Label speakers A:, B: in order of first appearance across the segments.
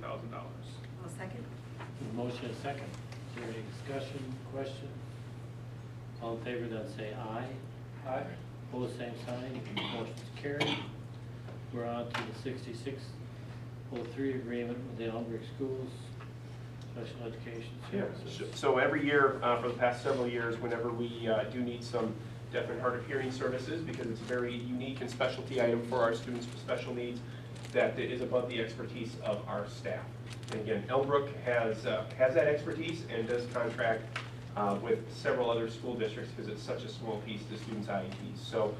A: thousand dollars.
B: I'll second.
C: Motion and second. Is there any discussion, question? All in favor, then say aye. Aye. Pose same sign, motion's carried. We're on to the sixty-six oh three agreement with the Elmbrook Schools Special Education Services.
D: So every year, uh, for the past several years, whenever we uh, do need some deaf and hard of hearing services, because it's a very unique and specialty item for our students with special needs, that is above the expertise of our staff. And again, Elbrook has, uh, has that expertise and does contract uh, with several other school districts because it's such a small piece to students' IEPs. So,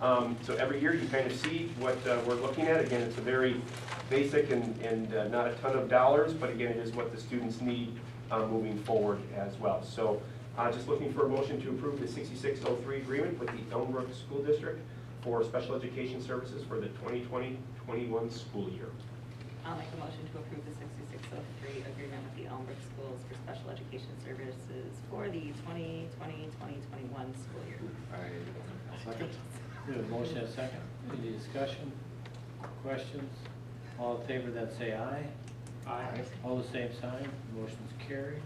D: um, so every year you kind of see what uh, we're looking at. Again, it's a very basic and, and uh, not a ton of dollars, but again, it is what the students need uh, moving forward as well. So uh, just looking for a motion to approve the 6603 agreement with the Elmbrook School District for special education services for the 2020-21 school year.
B: I'll make a motion to approve the 6603 agreement with the Elmbrook Schools for Special Education Services for the 2020-2021 school year.
E: I, second.
C: We have a motion and second. Any discussion, questions? All in favor, then say aye.
A: Aye.
C: All the same sign, motion's carried.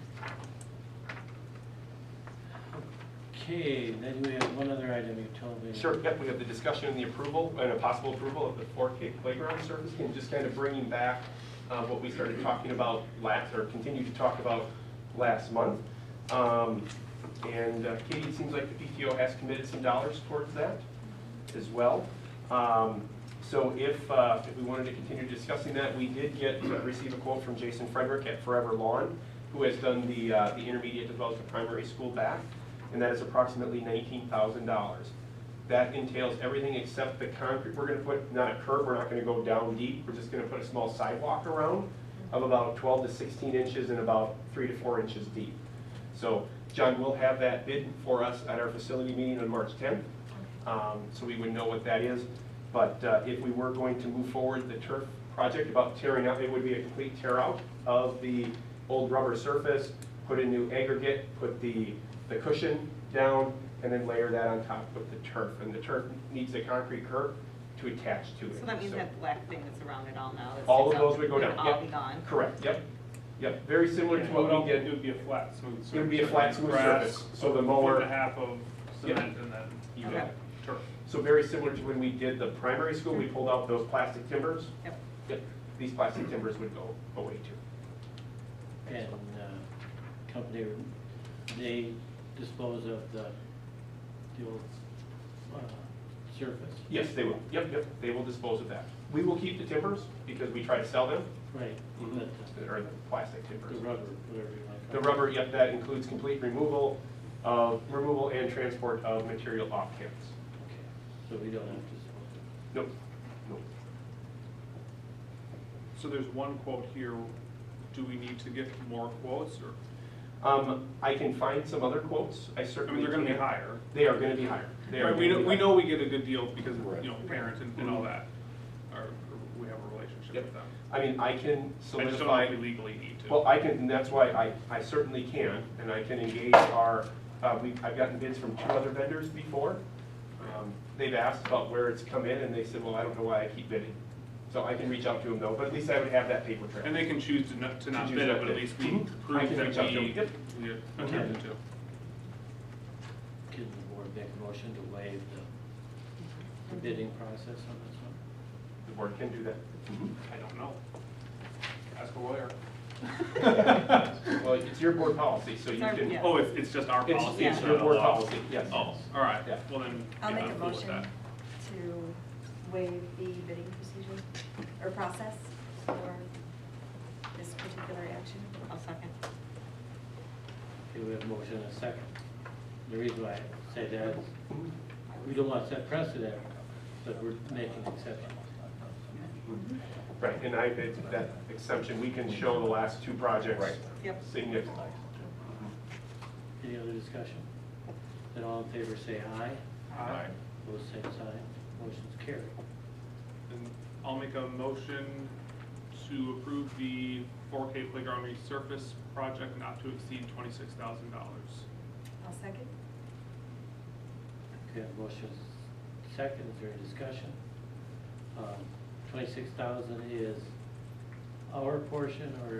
C: Okay, then we have one other item you told me.
D: Sure, yep, we have the discussion and the approval, and a possible approval of the 4K playground service, and just kind of bringing back uh, what we started talking about last, or continued to talk about last month. Um, And uh, Katie, it seems like the PTO has committed some dollars towards that as well. Um, So if, uh, if we wanted to continue discussing that, we did get, uh, receive a quote from Jason Frederick at Forever Lawn, who has done the, uh, the intermediate to both the primary school back, and that is approximately nineteen thousand dollars. That entails everything except the concrete, we're gonna put, not a curb, we're not gonna go down deep, we're just gonna put a small sidewalk around of about twelve to sixteen inches and about three to four inches deep. So John will have that bid for us at our facility meeting on March tenth, um, so we would know what that is. But uh, if we were going to move forward the turf project about tearing out, it would be a complete tear out of the old rubber surface, put a new aggregate, put the, the cushion down, and then layer that on top with the turf. And the turf needs a concrete curb to attach to it.
B: So that means that black thing that's around it all now. that
D: All
B: sticks
D: of those
B: out
D: would go down,
B: Would all
D: yep.
B: be gone.
D: Correct, yep, yep, very similar to
A: Yeah,
D: what we
A: It
D: did.
A: would be a flat, smooth surface.
D: It would be a flat, smooth
A: Grass,
D: surface, so the
A: a foot
D: mower-
A: and a half of
D: Yep.
A: cement and then
D: You got it.
A: turf.
D: So very similar to when we did the primary school, we pulled out those plastic timbers.
B: Yep.
D: Yep, these plastic timbers would go away too.
C: And uh, company, they dispose of the, the old uh, surface.
D: Yes, they will, yep, yep, they will dispose of that. We will keep the timbers because we try to sell them,
C: Right,
A: Mm-hmm.
C: but
D: or Mm-hmm. the plastic
C: the- the
D: timbers.
C: rubber, whatever you want to
D: The
C: call it.
D: rubber, yep, that includes complete removal, of removal and transport of material off campus.
C: Okay, So we don't have to dispose of
D: Nope, nope.
A: So there's one quote here. Do we need to get more quotes or,
D: Um, I can find some other quotes, I
A: I
D: certainly.
A: mean, they're gonna be
D: can.
A: higher.
D: They are gonna be higher. They are
A: Right, we
D: gonna
A: know,
D: be
A: we
D: higher.
A: know we get a good deal because, you know,
B: Right.
A: parents and and all that, or or we have a relationship
D: Mm-hmm. Yep.
A: with them.
D: I mean, I can
A: I just don't know
D: solidify.
A: if we legally need to.
D: Well, I can, and that's why I, I certainly can, and I can engage our, uh, we, I've gotten bids from two other vendors before. Um, They've asked about where it's come in, and they said, well, I don't know why I keep bidding. So I can reach out to them though, but at least I would have that paper
A: And
D: trail.
A: they can choose to not, to not
D: choose
A: bid
D: not
A: it, but at
D: bid.
A: least we
D: Mhm. I
A: prove
D: can reach
A: that
D: out to
A: we,
D: them.
A: we attempted to.
C: it. Can the board make a motion to waive the bidding process on this one?
D: The board can do that.
A: I don't know. Ask a lawyer.
D: Mhm. Well, it's your board policy, so you
B: It's our-
D: can.
B: yeah.
A: Oh, it's, it's just our
D: It's-
A: policy?
B: it's
A: not
D: your
A: a
D: board
A: law?
D: policy, yes.
A: Oh, all right,
D: Yeah.
A: well then.
F: I'll
A: yeah,
F: make a
A: I'm cool with
F: motion
A: that.
F: to waive the bidding procedure or process for this particular action.
B: I'll second.
C: Okay, we have a motion and a second. The reason why I say that is, we don't want to set precedent, but we're making exceptions.
D: Right, and I, it's that exemption, we can show the last two projects.
E: Right.
B: Yep.
D: Significant.
C: Any other discussion? Then all in favor say aye.
A: Aye.
C: Opposed, same sign. Motion's carried.
A: And I'll make a motion to approve the four K playground resurface project not to exceed twenty-six thousand dollars.
F: I'll second.
C: Okay, motion's second. Um, Is there any discussion? Twenty-six thousand is uh, our portion or